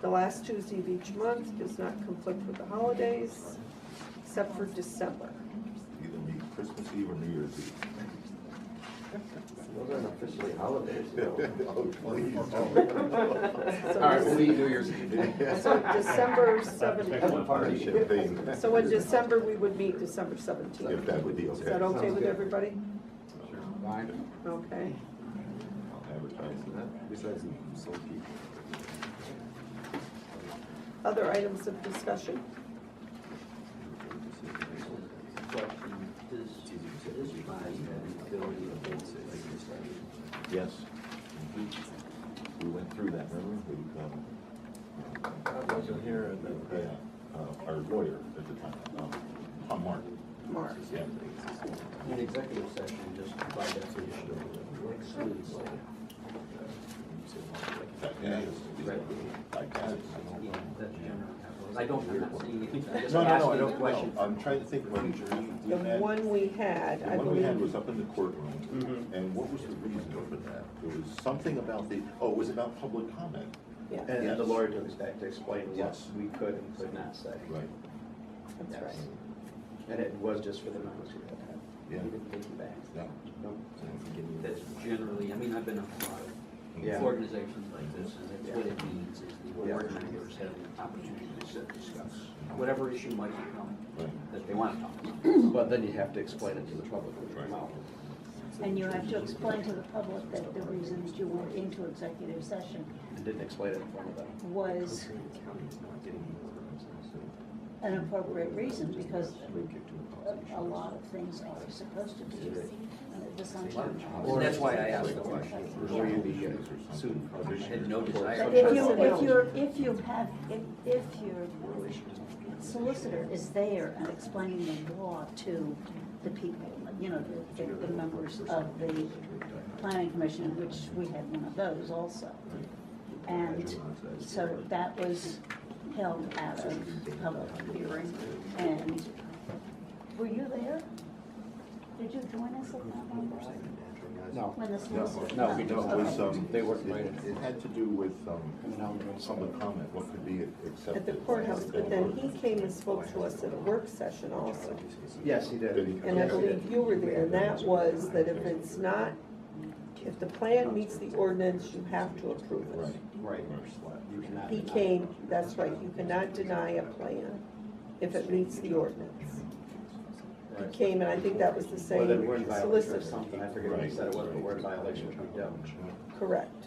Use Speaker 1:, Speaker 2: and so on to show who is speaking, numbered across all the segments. Speaker 1: the last Tuesday of each month does not conflict with the holidays, except for December.
Speaker 2: Either meet Christmas Eve or New Year's Eve.
Speaker 3: Those aren't officially holidays,
Speaker 2: Yeah,
Speaker 3: though.
Speaker 2: oh, please.
Speaker 1: So
Speaker 4: All right, we'll meet
Speaker 1: Dece-
Speaker 4: New Year's Eve.
Speaker 1: So December
Speaker 3: Have
Speaker 1: seventeenth,
Speaker 3: a party.
Speaker 2: Champagne.
Speaker 1: so in December, we would meet December seventeenth.
Speaker 2: If that would be okay.
Speaker 1: Is that okay
Speaker 3: sounds
Speaker 1: with
Speaker 3: good.
Speaker 1: everybody?
Speaker 4: Fine.
Speaker 1: Okay.
Speaker 2: I'll advertise that, besides the soul people.
Speaker 1: Other items of discussion?
Speaker 3: Question, does, does this body have the ability to hold sessions?
Speaker 2: Yes. We went through that, remember? We, um,
Speaker 3: I wasn't here at
Speaker 2: yeah, uh, our lawyer at the time, um, Tom Martin.
Speaker 1: Mark?
Speaker 2: Yeah.
Speaker 3: An executive session, just by definition, excludes like,
Speaker 2: Like that.
Speaker 3: you know, that general. I don't, I'm not saying it. I'm just
Speaker 2: No, no, no, I
Speaker 3: asking the
Speaker 2: don't,
Speaker 3: question.
Speaker 2: no,
Speaker 5: Uh,
Speaker 2: I'm trying to think when we
Speaker 1: The
Speaker 2: did that.
Speaker 1: one we had,
Speaker 2: The
Speaker 1: I
Speaker 2: one we had
Speaker 1: believe,
Speaker 2: was up in the courtroom, and what was the reason for that? It was something about the, oh, it was about public comment.
Speaker 1: yeah,
Speaker 5: And and the lawyer took us back to explain what
Speaker 2: Yes.
Speaker 5: we could and could not say.
Speaker 2: Right.
Speaker 1: that's right.
Speaker 5: And it was just for the members who had that.
Speaker 2: Yeah.
Speaker 5: We didn't take it back.
Speaker 2: Yeah.
Speaker 5: Nope.
Speaker 3: That's generally, I mean, I've been on a lot of
Speaker 5: Yeah.
Speaker 3: organizations like this, and that's what it means, is the board members have an opportunity to sit, discuss whatever issue might come
Speaker 2: Right.
Speaker 3: that they want to talk about.
Speaker 5: But then you have to explain it to the public when you come out.
Speaker 6: And you have to explain to the public that the reason that you went into executive session
Speaker 5: And didn't explain it in front of them.
Speaker 6: was an appropriate reason, because a lot of things are supposed to be at this time.
Speaker 3: And that's why I asked the question.
Speaker 5: Were you the uh, suit?
Speaker 3: I had no
Speaker 6: But
Speaker 3: desire.
Speaker 6: if you, if you're, if you have, if, if your solicitor is there and explaining the law to the people, you know, the, the members of the planning commission, which we had one of those also. And so that was held out of public hearing, and were you there? Did you join us at that one,
Speaker 4: No.
Speaker 6: when the solicitor?
Speaker 4: No, we
Speaker 2: No, it was, um.
Speaker 4: They weren't
Speaker 2: it-
Speaker 4: invited.
Speaker 2: It had to do with, um,
Speaker 4: And now we're doing something.
Speaker 2: public comment, what could be accepted.
Speaker 1: At the courthouse, but then he came and spoke to us at a work session also.
Speaker 5: Yes, he
Speaker 2: Did he
Speaker 5: did.
Speaker 2: come?
Speaker 1: And I believe you were there, and that was that if it's not, if the plan meets the ordinance, you have to approve
Speaker 2: Right.
Speaker 1: it.
Speaker 5: Right. You cannot
Speaker 1: He
Speaker 5: deny.
Speaker 1: came, that's right, you cannot deny a plan if it meets the ordinance. He
Speaker 5: Right.
Speaker 1: came, and I think that was the
Speaker 5: Well,
Speaker 1: same
Speaker 5: then we're in violation or
Speaker 1: solicitor,
Speaker 5: something. I forget what he said it was, but we're in violation of the
Speaker 1: correct.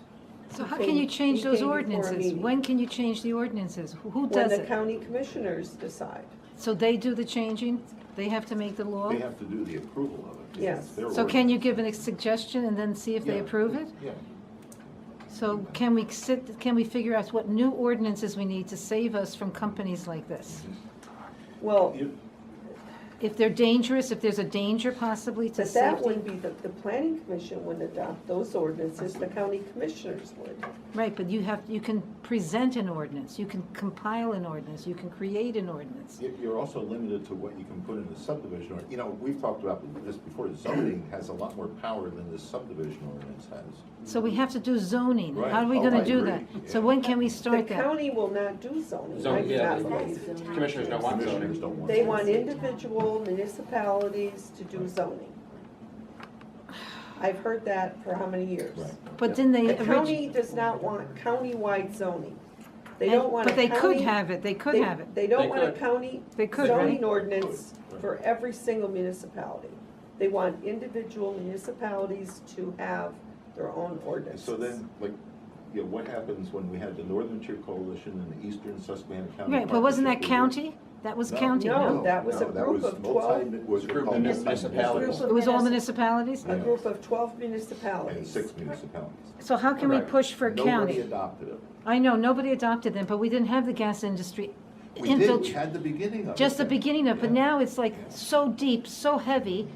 Speaker 7: So
Speaker 1: He
Speaker 7: how
Speaker 1: came-
Speaker 7: can you change
Speaker 1: he
Speaker 7: those
Speaker 1: came before a
Speaker 7: ordinances?
Speaker 1: meeting.
Speaker 7: When can you change the ordinances? Who- Who
Speaker 1: When
Speaker 7: does
Speaker 1: the
Speaker 7: it?
Speaker 1: county commissioners decide,
Speaker 7: So they do the changing? They have to make the law?
Speaker 2: They have to do the approval of it.
Speaker 1: Yes.
Speaker 2: It's their
Speaker 7: So can you
Speaker 2: ordinance.
Speaker 7: give a suggestion and then see if they
Speaker 2: Yeah.
Speaker 7: approve it?
Speaker 2: Yeah.
Speaker 7: So can we sit, can we figure out what new ordinances we need to save us from companies like this?
Speaker 1: well,
Speaker 2: You-
Speaker 7: If they're dangerous, if there's a danger possibly to
Speaker 1: but that
Speaker 7: safety?
Speaker 1: wouldn't be, the, the planning commission wouldn't adopt those ordinances, the county commissioners would.
Speaker 7: Right, but you have, you can present an ordinance, you can compile an ordinance, you can create an ordinance.
Speaker 2: you- You're also limited to what you can put in the subdivision, or, you know, we've talked about this before, zoning has a lot more power than the subdivision ordinance has.
Speaker 7: So we have to do zoning.
Speaker 2: Right.
Speaker 7: How are we
Speaker 2: Oh, I
Speaker 7: gonna do
Speaker 2: agree.
Speaker 7: that? So
Speaker 2: Yeah.
Speaker 7: when can we
Speaker 1: The
Speaker 7: start that?
Speaker 1: county will not do zoning, I
Speaker 4: Zone-
Speaker 1: do
Speaker 4: yeah,
Speaker 1: not
Speaker 4: they-
Speaker 1: believe.
Speaker 4: Commissioners don't want
Speaker 2: Commissioners
Speaker 4: zoning.
Speaker 2: don't want.
Speaker 1: They
Speaker 2: it.
Speaker 1: want individual municipalities to do zoning. I've heard that for how many years?
Speaker 2: Right.
Speaker 7: But then they.
Speaker 1: The
Speaker 7: orig-
Speaker 1: county does not want countywide zoning. They don't
Speaker 7: And-
Speaker 1: want a
Speaker 7: But they could
Speaker 1: county-
Speaker 7: have it, they could
Speaker 1: they-
Speaker 7: have it.
Speaker 1: They don't
Speaker 4: They
Speaker 1: want a
Speaker 4: could.
Speaker 1: county
Speaker 7: They could,
Speaker 1: zoning
Speaker 7: right?
Speaker 1: ordinance
Speaker 2: Right.
Speaker 1: for every single municipality. They want individual municipalities to have their own
Speaker 2: And
Speaker 1: ordinances.
Speaker 2: so then, like, you know, what happens when we had the Northern Tier Coalition and the Eastern Susquehanna County?
Speaker 7: Right, but wasn't that
Speaker 2: Partnership?
Speaker 7: county? That was county,
Speaker 1: No,
Speaker 7: no?
Speaker 1: that was a
Speaker 2: No, that
Speaker 1: group
Speaker 2: was
Speaker 1: of
Speaker 2: multi-
Speaker 1: 12.
Speaker 2: it was
Speaker 5: It's a group of
Speaker 2: called
Speaker 5: municipalities.
Speaker 6: Group of
Speaker 7: It was all
Speaker 6: municipal-
Speaker 7: municipalities?
Speaker 1: A group of twelve municipalities.
Speaker 2: And six municipalities.
Speaker 7: So how can we
Speaker 5: Correct.
Speaker 7: push for
Speaker 2: Nobody
Speaker 7: county?
Speaker 2: adopted it.
Speaker 7: I know, nobody adopted them, but we didn't have the gas industry
Speaker 2: We did, we
Speaker 7: infiltrate.
Speaker 2: had the beginning of it.
Speaker 7: Just the
Speaker 2: then.
Speaker 7: beginning of, but
Speaker 2: Yeah.
Speaker 7: now it's like so deep, so heavy,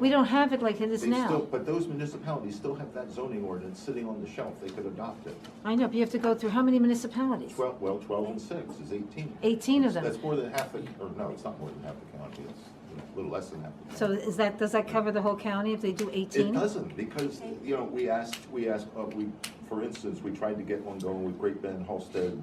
Speaker 7: we don't have it like it is
Speaker 2: They still,
Speaker 7: now.
Speaker 2: but those municipalities still have that zoning ordinance sitting on the shelf, they could adopt it.
Speaker 7: I know, but you have to go through how many municipalities?
Speaker 2: Twelve, well, twelve and six is eighteen.
Speaker 7: 18 of them.
Speaker 2: That's more than half the, or no, it's not more than half the county, it's a little less than half the county.
Speaker 7: So is that, does that cover the whole county if they do
Speaker 2: It
Speaker 7: 18?
Speaker 2: doesn't, because, you know, we asked, we asked, uh, we, for instance, we tried to get one going with Great Bend, Halsted,